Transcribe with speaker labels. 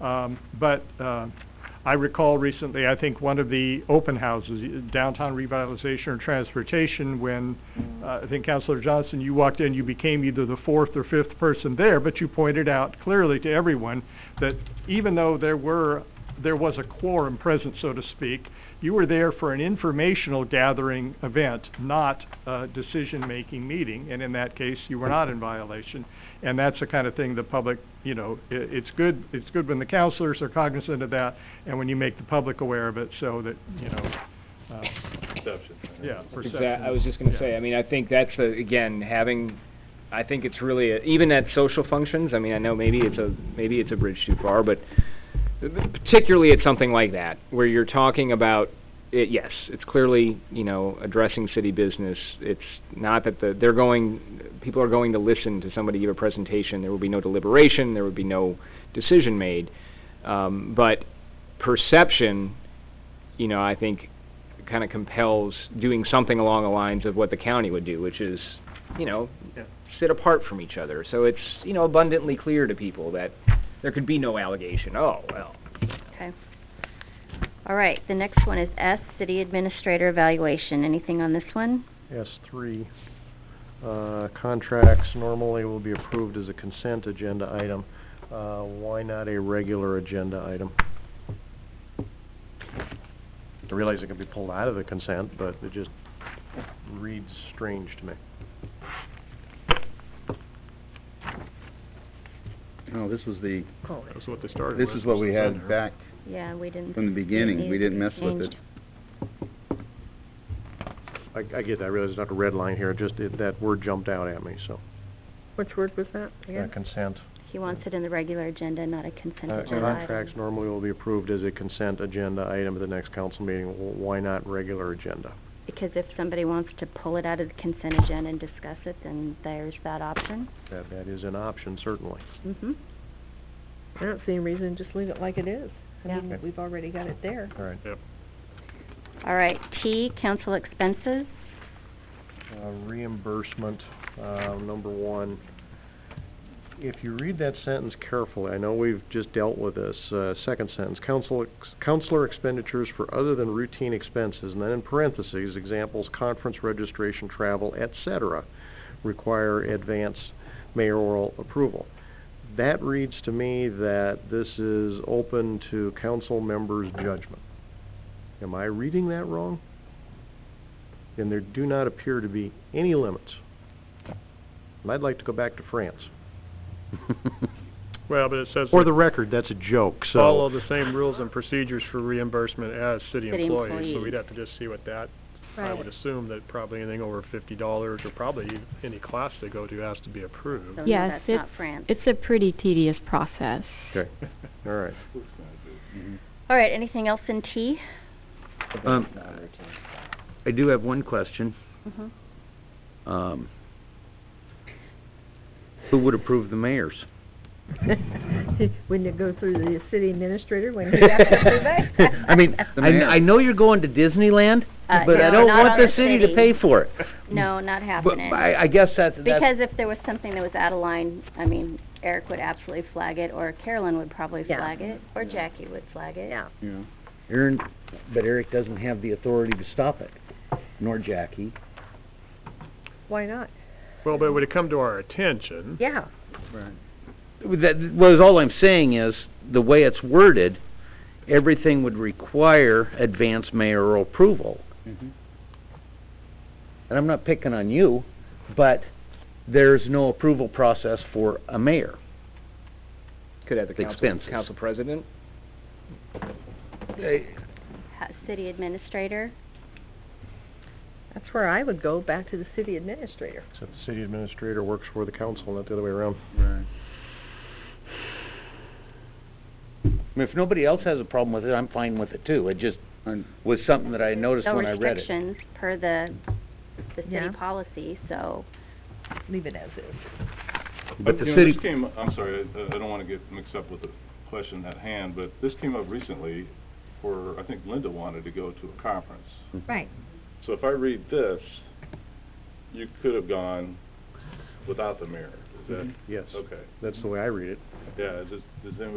Speaker 1: Um, But uh, I recall recently, I think one of the open houses, downtown revitalization or transportation, when uh, I think Counselor Johnson, you walked in, you became either the fourth or fifth person there, but you pointed out clearly to everyone that even though there were, there was a quorum present, so to speak, you were there for an informational gathering event, not a decision-making meeting, and in that case, you were not in violation. And that's the kind of thing the public, you know, i- it's good, it's good when the counselors are cognizant of that, and when you make the public aware of it, so that, you know, uh,
Speaker 2: Perception.
Speaker 1: yeah,
Speaker 3: That's
Speaker 1: perception.
Speaker 3: exact- I was just gonna
Speaker 1: yeah.
Speaker 3: say, I mean, I think that's, a- again, having, I think it's really, a- even at social functions, I mean, I know maybe it's a, maybe it's a bridge too far, but particularly at something like that, where you're talking about, it, yes, it's clearly, you know, addressing city business. It's not that the, they're going, people are going to listen to somebody give a presentation. There will be no deliberation, there would be no decision made. Um, but perception, you know, I think kind of compels doing something along the lines of what the county would do, which is, you know,
Speaker 1: Yeah.
Speaker 3: sit apart from each other. So it's, you know, abundantly clear to people that there could be no allegation. Oh, well,
Speaker 4: Okay. All right, the next one is S, City Administrator Evaluation. Anything on this one?
Speaker 5: S three. Uh, contracts normally will be approved as a consent agenda item. Uh, why not a regular agenda item? I realize it can be pulled out of the consent, but it just reads strange to me.
Speaker 6: No, this was the,
Speaker 4: Oh.
Speaker 1: That was what they started
Speaker 6: this
Speaker 1: with.
Speaker 6: is what we
Speaker 1: down there.
Speaker 6: had back
Speaker 4: Yeah, we didn't.
Speaker 6: from the beginning. We didn't mess with it.
Speaker 5: I, I get that, I realize it's not a red line here, it just, it- that word jumped out at me, so.
Speaker 7: Which word was that
Speaker 5: Uh,
Speaker 7: again?
Speaker 5: Consent.
Speaker 4: He wants it in the regular agenda, not a consent
Speaker 5: Uh,
Speaker 4: agenda
Speaker 5: Contracts
Speaker 4: item.
Speaker 5: normally will be approved as a consent agenda item at the next council meeting. Wh- Why not regular agenda?
Speaker 4: Because if somebody wants to pull it out of the consent agenda and discuss it, then there's that option.
Speaker 5: That, that is an option, certainly.
Speaker 4: Mm-hmm.
Speaker 7: I don't see any reason, just leave it like it is. I
Speaker 4: Yeah.
Speaker 7: mean, we've already got it there.
Speaker 5: All right.
Speaker 4: All right, T, Council Expenses.
Speaker 5: Uh, reimbursement, uh, number one. If you read that sentence carefully, I know we've just dealt with this, uh, second sentence, council, ex- counselor expenditures for other than routine expenses, and then in parentheses, examples, conference registration, travel, et cetera, require advance mayoral approval. That reads to me that this is open to council members' judgment. Am I reading that wrong? and there do not appear to be any limits. And I'd like to go back to France.
Speaker 8: Well, but it says
Speaker 5: For
Speaker 8: that
Speaker 5: the record, that's a joke, so...
Speaker 8: follow the same rules and procedures for reimbursement as city
Speaker 4: City
Speaker 8: employees, so
Speaker 4: employees.
Speaker 8: we'd have to just see what that, I would assume that probably anything over fifty dollars or probably e- any class they go to has to be approved.
Speaker 4: So no,
Speaker 9: Yes,
Speaker 4: that's
Speaker 9: it's-
Speaker 4: not France.
Speaker 9: It's a pretty tedious process.
Speaker 5: Okay, all right.
Speaker 4: All right, anything else in T?
Speaker 6: Um, I do have one question.
Speaker 4: Mhm.
Speaker 6: Um, who would approve the mayor's?
Speaker 7: Wouldn't it go through the city administrator when he has to do that?
Speaker 6: I mean, The I, mayor. I know you're going to Disneyland,
Speaker 4: Uh,
Speaker 6: but I
Speaker 4: no,
Speaker 6: don't
Speaker 4: not
Speaker 6: want
Speaker 4: on
Speaker 6: the city to pay for it.
Speaker 4: No, not
Speaker 6: But
Speaker 4: happening.
Speaker 6: I, I guess that's, that's...
Speaker 4: Because if there was something that was out of line, I mean, Eric would absolutely flag it, or Carolyn would probably
Speaker 7: Yeah.
Speaker 4: flag it, or Jackie would flag it.
Speaker 7: Yeah.
Speaker 6: Yeah. Aaron, but Eric doesn't have the authority to stop it, nor Jackie.
Speaker 7: Why not?
Speaker 8: Well, but would it come to our attention?
Speaker 7: Yeah.
Speaker 6: That, well, all I'm saying is, the way it's worded, everything would require advance mayoral approval. Mm-hmm. And I'm not picking on you, but there's no approval process for a mayor.
Speaker 3: Could have the council,
Speaker 6: Expenses.
Speaker 3: council president?
Speaker 4: Ha- City administrator,
Speaker 7: That's where I would go, back to the city administrator.
Speaker 5: Except the city administrator works for the council, not the other way around.
Speaker 6: Right. I mean, if nobody else has a problem with it, I'm fine with it too. It just was something that I noticed
Speaker 4: no
Speaker 6: when I read it.
Speaker 4: restrictions per the, the
Speaker 7: Yeah.
Speaker 4: city policy, so.
Speaker 7: Leave it as is.
Speaker 6: But the
Speaker 2: you know,
Speaker 6: city-
Speaker 2: This came, I'm sorry, I- I don't want to get mixed up with the question at hand, but this came up recently for, I think Linda wanted to go to a conference.
Speaker 6: Hmm.
Speaker 7: Right.
Speaker 2: So if I read this, you could have gone without the mayor. Is that,
Speaker 5: Yes,
Speaker 6: Mm-hmm.
Speaker 2: okay.
Speaker 5: that's the way I read it.
Speaker 2: Yeah, does, does anybody